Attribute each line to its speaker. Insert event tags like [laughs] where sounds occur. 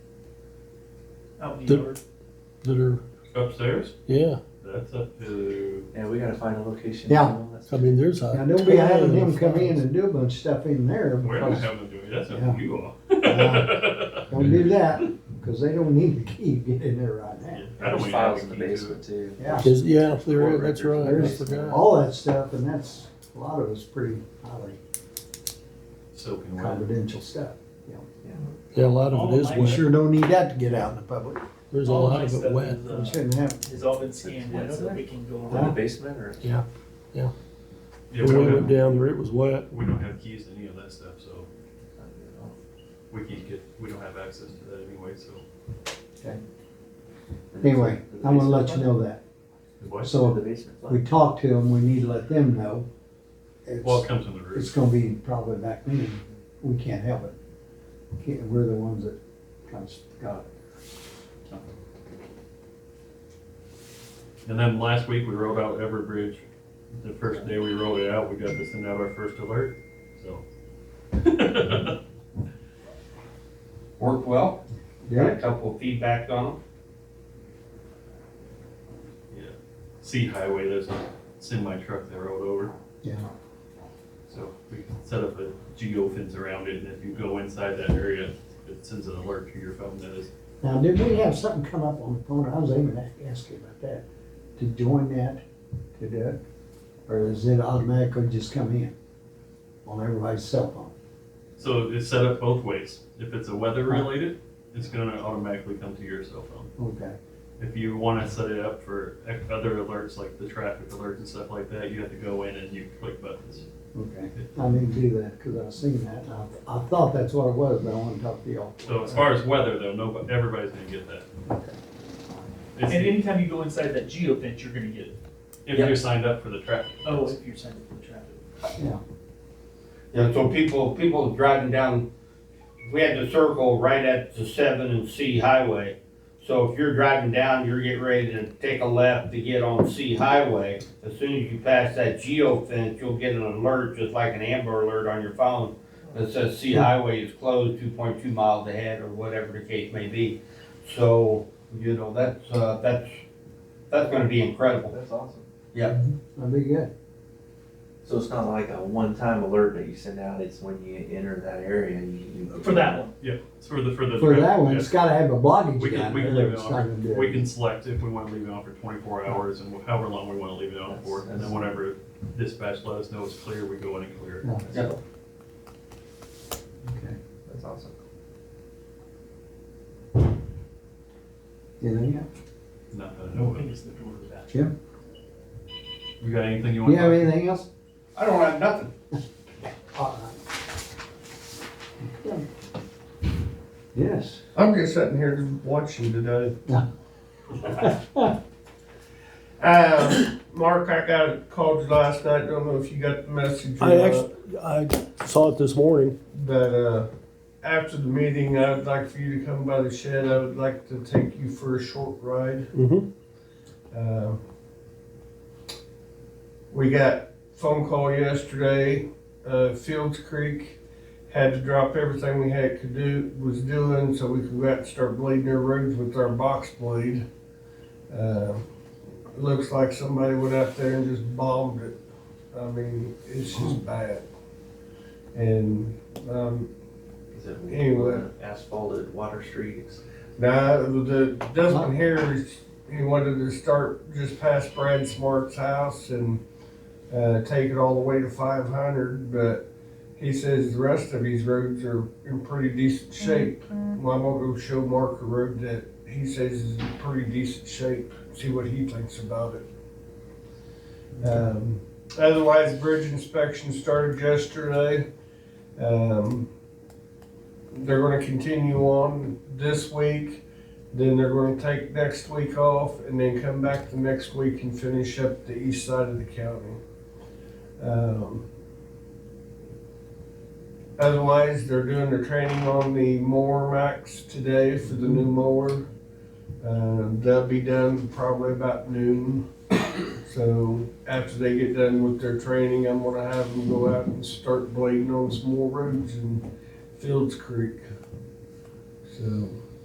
Speaker 1: out in the
Speaker 2: The-
Speaker 1: yard.
Speaker 2: that are,
Speaker 3: Upstairs?
Speaker 2: yeah,
Speaker 3: That's up to,
Speaker 4: Yeah, we gotta find a location.
Speaker 5: Yeah.
Speaker 4: for them. That's-
Speaker 2: I mean, there's a.
Speaker 5: Now, don't be
Speaker 2: ton
Speaker 5: having
Speaker 2: of
Speaker 5: him come in
Speaker 2: files.
Speaker 5: and do a bunch of stuff in there.
Speaker 3: we're not
Speaker 5: because
Speaker 3: having to do it, that's up
Speaker 5: [laughs] Yeah.
Speaker 3: to you all.
Speaker 5: Don't do that, because they don't need the key to get in there right now.
Speaker 3: I don't
Speaker 4: There's
Speaker 3: even
Speaker 4: files
Speaker 3: have a
Speaker 4: in the
Speaker 3: key to it.
Speaker 4: basement too.
Speaker 5: Yeah,
Speaker 2: Is- Yeah, there is, that's right, I
Speaker 5: There's-
Speaker 2: forgot.
Speaker 5: all that stuff, and that's, a lot of it's pretty highly
Speaker 3: So can we,
Speaker 5: confidential stuff.
Speaker 2: Yeah, a lot of it is
Speaker 5: We
Speaker 2: wet,
Speaker 5: sure don't need that to get out in the public.
Speaker 2: there's a
Speaker 1: All of
Speaker 2: lot
Speaker 1: my
Speaker 2: of it
Speaker 1: stuff
Speaker 2: wet.
Speaker 1: is,
Speaker 5: We
Speaker 1: uh,
Speaker 5: shouldn't have,
Speaker 1: It's all been scanned in, so we can go
Speaker 4: In the
Speaker 1: around.
Speaker 4: basement or?
Speaker 3: yeah,
Speaker 2: When
Speaker 3: we
Speaker 2: we
Speaker 3: don't
Speaker 2: went
Speaker 3: have,
Speaker 2: down there, it was wet,
Speaker 3: we don't have keys to any of that stuff, so we can't get, we don't have access to that anyway, so.
Speaker 5: anyway, I'm gonna let you know that.
Speaker 3: What?
Speaker 4: In the
Speaker 5: So
Speaker 4: basement.
Speaker 5: if we talk to them, we need to let them know.
Speaker 3: Well, it
Speaker 5: It's,
Speaker 3: comes in the
Speaker 5: it's
Speaker 3: roof.
Speaker 5: gonna be probably back then, we can't help it. Can't- We're the ones that kind of got it.
Speaker 3: And then last week, we rolled out Everbridge. The first day we rolled it out, we got to send out our first alert,
Speaker 4: [laughs]
Speaker 3: so. [laughs]
Speaker 6: Worked well, got
Speaker 5: Yeah,
Speaker 6: a couple of feedback on
Speaker 3: Sea Highway, there's a semi truck that rolled over.
Speaker 5: yeah.
Speaker 3: So we can set up a geo fence around it, and if you go inside that area, it sends an alert to your phone that is.
Speaker 5: Now, did we have something come up on the phone? I was aiming to ask you about that, to join that, to do it? Or is it automatically just come in on everybody's cell phone?
Speaker 3: So it's set up both ways. If it's a weather related, it's gonna automatically come to your cell phone.
Speaker 5: Okay,
Speaker 3: If you wanna set it up for ec- other alerts, like the traffic alerts and stuff like that, you have to go in and you click buttons.
Speaker 5: okay. I need to do that because I've seen that. and I, I thought that's what it was, but I want to talk to y'all.
Speaker 3: So as far as weather though, nobody, everybody's gonna get that. It's
Speaker 1: And
Speaker 3: the-
Speaker 1: anytime you go inside that geo fence, you're gonna get, it.
Speaker 3: If you're signed up for the traffic.
Speaker 1: oh, if you're signed up for the traffic.
Speaker 6: them. And so people, people driving down, we had the circle right at the seven and C highway. So if you're driving down, you're getting ready to take a left to get on C highway. As soon as you pass that geo fence, you'll get an alert, just like an Amber Alert on your phone that says C highway is closed two point two miles ahead or whatever the case may be. So, you know, that's, uh, that's, that's gonna be incredible.
Speaker 4: That's awesome.
Speaker 5: That'd be good.
Speaker 4: So it's not like a one-time alert that you send out, it's when you enter that area, you. you-
Speaker 1: For that one,
Speaker 3: Yeah, it's for the, for the.
Speaker 5: For
Speaker 3: traffic,
Speaker 5: that one,
Speaker 3: yeah.
Speaker 5: it's gotta have a blockage
Speaker 3: We
Speaker 5: down
Speaker 3: can, we
Speaker 5: there.
Speaker 3: can leave it
Speaker 5: It's not
Speaker 3: on,
Speaker 5: gonna do
Speaker 3: we
Speaker 5: it.
Speaker 3: can select if we wanna leave it on for twenty-four hours and however long we wanna leave it on for. And then whenever dispatch let us know it's clear, we go in and clear
Speaker 5: Yeah.
Speaker 3: it.
Speaker 6: Yeah.
Speaker 5: Okay.
Speaker 4: That's awesome.
Speaker 5: Anything else?
Speaker 3: Not that I
Speaker 1: no
Speaker 3: know of.
Speaker 1: one is the door to the bathroom.
Speaker 3: You got anything you
Speaker 5: You
Speaker 3: wanna?
Speaker 5: have
Speaker 3: talk-
Speaker 5: anything else?
Speaker 6: I don't have nothing
Speaker 5: All right. Okay. Yes.
Speaker 7: I'm just sitting here
Speaker 2: [laughs]
Speaker 7: watching today.
Speaker 5: Yeah.
Speaker 7: Um, Mark, I got, called you last night, don't know if you got the message or
Speaker 2: I
Speaker 7: not,
Speaker 2: actually, I saw it this morning,
Speaker 7: but, uh, after the meeting, I would like for you to come by the shed, I would like to take you for a short ride.
Speaker 2: hmm
Speaker 7: Um, We got phone call yesterday, uh, Fields Creek had to drop everything we had could do, was doing, so we could go out and start bleeding their roads with our box bleed. Um, Looks like somebody went out there and just bombed it. I mean, it's just bad. And, um,
Speaker 4: Is it
Speaker 7: Anyway.
Speaker 4: asphalted water streets?
Speaker 7: now, the Dustin here is, he wanted to start just past Brad Smart's house and uh, take it all the way to five hundred, but he says the rest of these roads are in pretty decent shape. Well, I'm gonna go show Mark a road that he says is in pretty decent shape, see what he thinks about it. Um, otherwise, bridge inspection started yesterday. Um, they're gonna continue on this week, then they're gonna take next week off, and then come back the next week and finish up the east side of the county. Um, Otherwise, they're doing their training on the mower max today for the new mower. Uh, that'll be done probably about noon. So after they get done with their training, I'm gonna have them go out and start blading on some more roads in Fields Creek. So